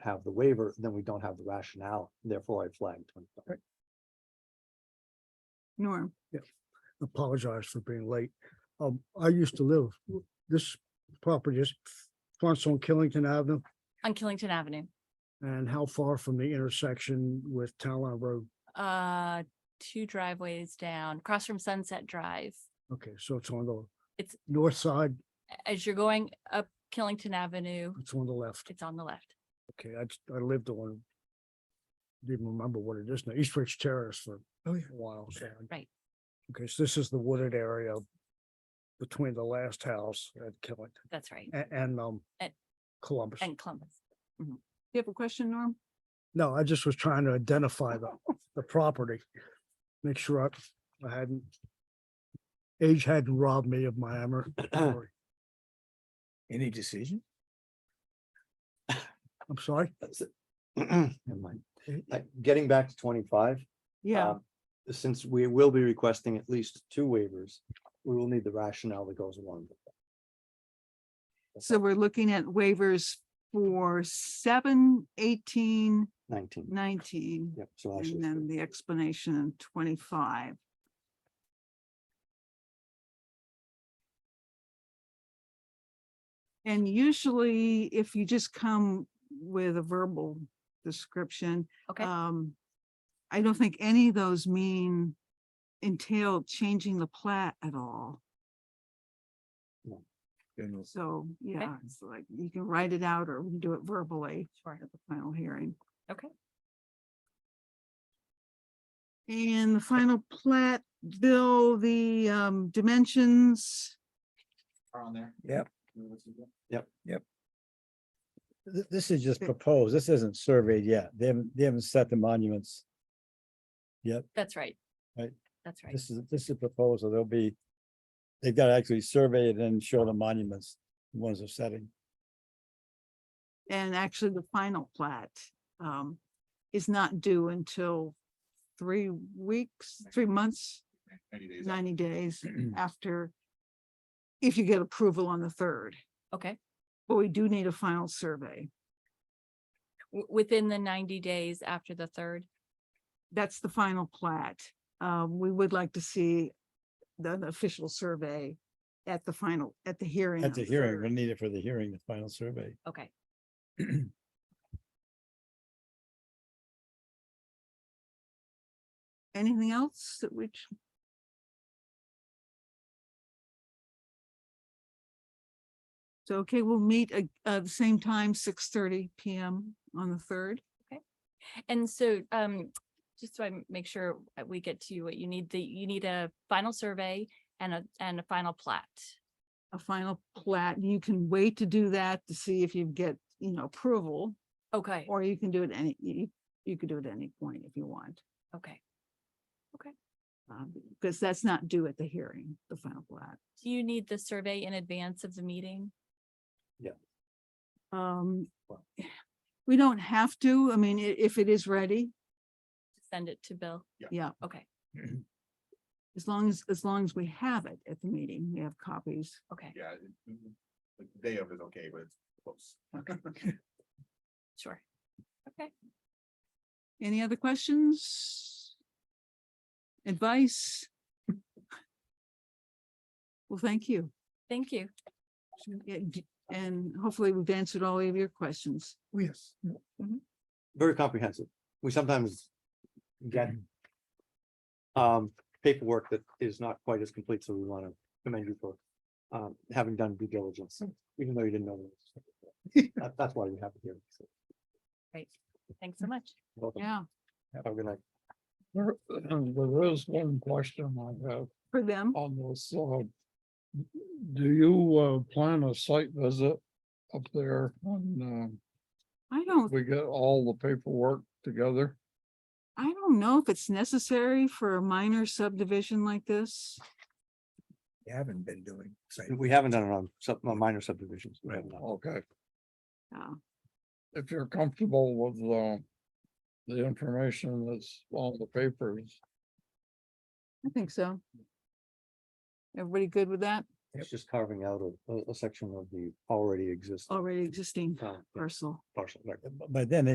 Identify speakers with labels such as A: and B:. A: have the waiver, then we don't have the rationale, therefore I flagged. twenty five.
B: Norm,
C: apologize for being late. Um, I used to live, this property is fronts on Killington Avenue
D: on Killington Avenue,
C: and how far from the intersection with Town Line Road?
D: uh, two driveways down, across from Sunset Drive.
C: Okay, so it's on the
D: It's-
C: north side,
D: A- As you're going up Killington Avenue,
C: it's on the left.
D: it's on the left.
C: Okay, I, just- I lived on, didn't remember what it is now, East Ridge Terrace for a while. so I-
D: Right.
C: Okay, so this is the wooded area between the last house at Killington
D: That's right.
C: a- and, um,
D: And-
C: Columbus.
D: And Columbus.
B: you have a question, Norm?
C: No, I just was trying to identify the, the property. Make sure I, I hadn't. Age hadn't robbed me of my hammer. Sorry.
E: Any decision?
C: I'm sorry.
A: That's it. Never mind. I- Getting back to twenty-five.
B: Yeah,
A: um, Since we will be requesting at least two waivers, we will need the rationale that goes along with that. That's
B: so we're looking at waivers for seven, eighteen,
A: Nineteen,
B: nineteen,
A: yep, so actually.
B: and then the explanation in twenty-five. And usually if you just come with a verbal description,
D: Okay,
F: Uh,
B: um, I don't think any of those mean entail changing the plat at all.
E: General-
B: So, yeah, it's like you can write it out or we can do it verbally
D: sure.
B: at the final hearing.
D: Okay.
B: And the final plat, Bill, the um dimensions,
G: are on there.
E: Yep.
F: Th- This is just
B: Okay.
F: proposed. This isn't surveyed yet. They haven't, they haven't set the monuments.
D: That's right.
F: Right.
D: That's right.
F: This is, this is proposal. There'll be, they've got to actually survey it and show the monuments, the ones they're setting.
B: and actually the final plat um is not due until three weeks, three months,
G: Ninety days. out.
B: ninety days after if you get approval on the third,
D: Okay.
B: but we do need a final survey.
D: W- Within the ninety days after the third.
B: that's the final plat. Um, we would like to see the the official survey at the final, at the hearing.
F: At
B: on
F: the
B: the
F: hearing,
B: third.
F: we'll need it for the hearing, the final survey.
D: Okay.
B: Anything else that which? So, okay, we'll meet at, uh, the same time, six thirty PM on the third.
D: And so, um, just so I m- make sure that we get to you what you need, the, you need a final survey and a, and a final plat.
B: a final plat. You can wait to do that to see if you get, you know, approval,
D: Okay,
B: or you can do it any, you, you could do it any point if you want.
D: okay.
B: Um, because that's not due at the hearing, the final plat.
D: Do you need the survey in advance of the meeting?
B: Um,
A: Well-
B: we don't have to, I mean, i- if it is ready,
D: Send it to Bill?
B: yeah,
D: Okay,
B: as long as, as long as we have it at the meeting, we have copies.
D: okay,
G: Yeah. it- it- Like the day of is okay, but it's close.
D: sure.
B: Any other questions? Advice? Well, thank you.
D: Thank you.
B: Yeah, d- And hopefully we've answered all of your questions.
E: Yes.
A: very comprehensive. We sometimes get
E: Mm-hmm.
A: um, paperwork that is not quite as complete, so we want to commend you for um, having done due
E: Hmm.
A: diligence, even though you didn't know. this. That- That's why we have it here. so,
D: Great. Thanks so much.
A: welcome.
B: Yeah,
A: Have a good night.
H: There, uh, there is one question I have
B: for them.
H: on this, uh. Do you, uh, plan a site visit up there when,
B: I
H: uh,
B: don't,
H: we get all the paperwork together?
B: I don't know if it's necessary for a minor subdivision like this.
E: You haven't been doing. site
A: We haven't done it on sub, on minor subdivisions. We
E: Right.
A: haven't done it.
H: Okay,
B: Yeah.
H: if you're comfortable with, uh, the information that's on the papers,
B: I think so. Everybody good with that?
A: It's just carving out a, a- a section of the already existing
B: already existing
A: town
B: parcel.
A: parcel, right?
F: By then,